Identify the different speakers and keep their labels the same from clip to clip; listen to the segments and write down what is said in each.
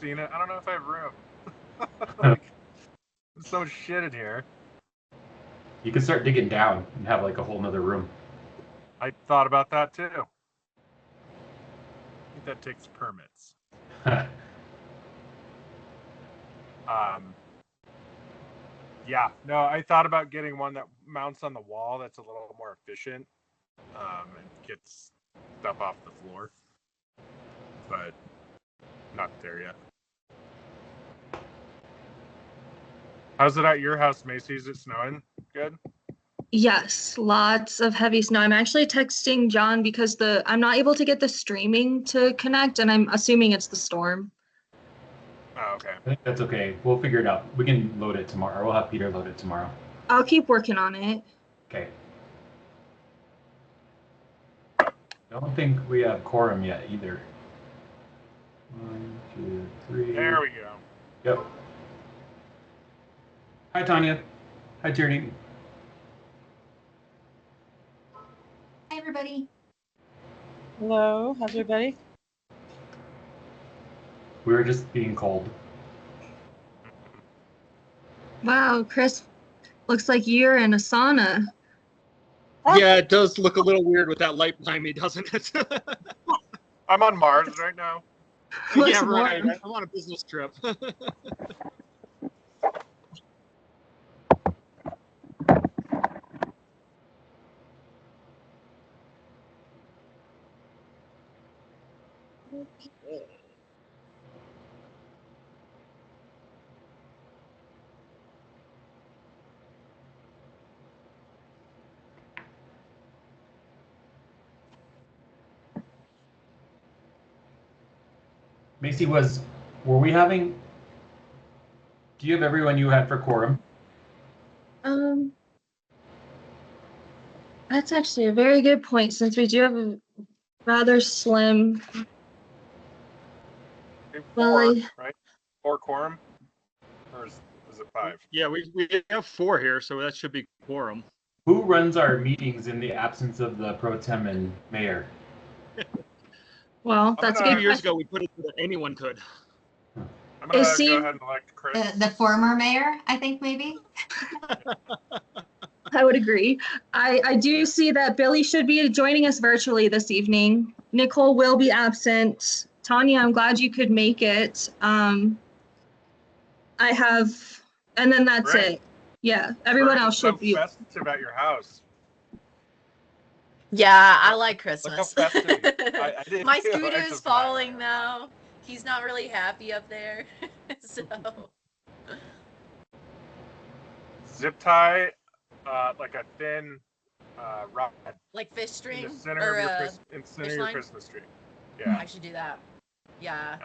Speaker 1: Cena. I don't know if I have room. like, there's so much shit in here.
Speaker 2: You can start digging down and have like a whole nother room.
Speaker 1: I thought about that too. I think that takes permits. Um, yeah, no, I thought about getting one that mounts on the wall. That's a little more efficient um, and gets stuff off the floor, but not there yet. How's it at your house, Macy? Is it snowing? Good.
Speaker 3: Yes, lots of heavy snow. I'm actually texting John because the I'm not able to get the streaming to connect, and I'm assuming it's the storm.
Speaker 1: Oh, okay.
Speaker 2: I think that's okay. We'll figure it out. We can load it tomorrow. We'll have Peter load it tomorrow.
Speaker 3: I'll keep working on it.
Speaker 2: Okay. I don't think we have quorum yet either. One, two, three.
Speaker 1: There we go.
Speaker 2: Yep. Hi, Tanya. Hi, Tierney.
Speaker 4: Hi, everybody.
Speaker 5: Hello, how's everybody?
Speaker 2: We were just being cold.
Speaker 3: Wow, Chris, looks like you're in a sauna.
Speaker 6: Yeah, it does look a little weird with that light behind me, doesn't it?
Speaker 1: I'm on Mars right now.
Speaker 3: Looks
Speaker 6: yeah, right.
Speaker 3: warm.
Speaker 6: I'm on a business trip. Uh,
Speaker 2: Macy was, were we having, do you have everyone you had for quorum?
Speaker 3: Um, that's actually a very good point since we do have a rather slim.
Speaker 1: Okay,
Speaker 3: Well,
Speaker 1: Four,
Speaker 3: I-
Speaker 1: right? Four quorum? Or is, is it five?
Speaker 6: yeah, we, we have four here, so that should be quorum.
Speaker 2: Who runs our meetings in the absence of the pro tem and mayor?
Speaker 3: Well, that's a
Speaker 6: a
Speaker 3: good.
Speaker 6: few years
Speaker 3: question.
Speaker 6: ago, we put it so that anyone could.
Speaker 1: I'm gonna
Speaker 3: Is he-
Speaker 1: go ahead and elect Chris.
Speaker 4: The, the former mayor, I think maybe.
Speaker 3: I would agree. I, I do see that Billy should be joining us virtually this evening. Nicole will be absent. Tanya, I'm glad you could make it. Um, I have, and then that's
Speaker 1: Right.
Speaker 3: it. Yeah, everyone
Speaker 1: Burn
Speaker 3: else
Speaker 1: some
Speaker 3: should be.
Speaker 1: Message about your house.
Speaker 7: Yeah, I like
Speaker 1: Look
Speaker 7: Christmas.
Speaker 1: how festive. I, I didn't
Speaker 7: My
Speaker 1: do it, I
Speaker 7: scooter is
Speaker 1: just-
Speaker 7: falling though. He's not really happy up there. so
Speaker 1: Zip tie, uh, like a thin uh, rod
Speaker 7: like fish
Speaker 1: in
Speaker 7: string
Speaker 1: the center
Speaker 7: or
Speaker 1: of your,
Speaker 7: uh,
Speaker 1: Chris- in the center
Speaker 7: fish
Speaker 1: of your
Speaker 7: line?
Speaker 1: Christmas tree. Yeah.
Speaker 7: I should do that. Yeah.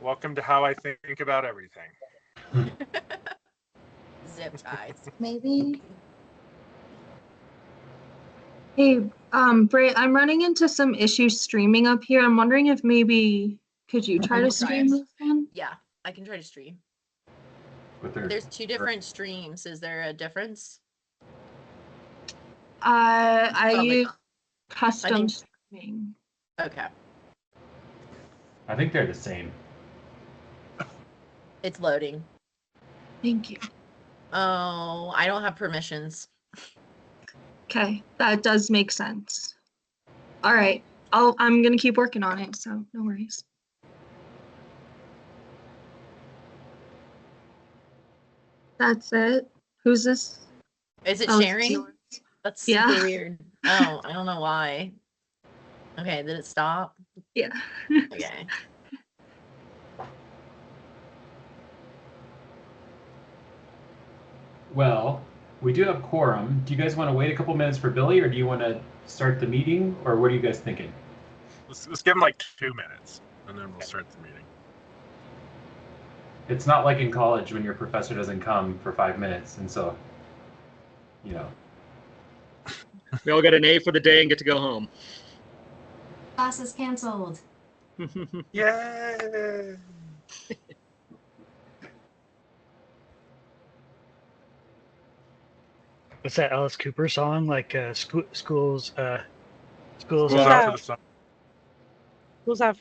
Speaker 1: Welcome to how I think about everything.
Speaker 7: Zip ties.
Speaker 4: Maybe.
Speaker 3: Hey, um, Bray, I'm running into some issues streaming up here. I'm wondering if maybe, could you try to
Speaker 7: Okay.
Speaker 3: stream this one?
Speaker 7: yeah. I can try to stream.
Speaker 2: With their,
Speaker 7: There's two different streams. Is there a difference?
Speaker 3: Uh, I
Speaker 7: Probably
Speaker 3: use
Speaker 7: not.
Speaker 3: custom
Speaker 7: think-
Speaker 3: streaming.
Speaker 7: Okay.
Speaker 2: I think they're the same.
Speaker 7: It's loading.
Speaker 3: Thank you.
Speaker 7: Oh, I don't have permissions.
Speaker 3: Okay, that does make sense. All right, I'll, I'm gonna keep working on it, so no worries. That's it. Who's this?
Speaker 7: Is it
Speaker 3: Oh, it's
Speaker 7: sharing?
Speaker 3: yours.
Speaker 7: That's
Speaker 3: Yeah.
Speaker 7: super weird. Oh, I don't know why. Okay, did it stop?
Speaker 3: Yeah.
Speaker 7: Okay.
Speaker 2: Well, we do have quorum. Do you guys want to wait a couple minutes for Billy or do you want to start the meeting or what are you guys thinking?
Speaker 1: Let's, let's give him like two minutes and then we'll start the meeting.
Speaker 2: It's not like in college when your professor doesn't come for five minutes and so, you know,
Speaker 6: We all get an A for the day and get to go home.
Speaker 4: Class is canceled.
Speaker 1: Yay!
Speaker 8: What's that Alice Cooper song? Like uh, school, schools, uh, schools.
Speaker 1: Goes
Speaker 8: out-
Speaker 1: out to the sun.
Speaker 5: Who's out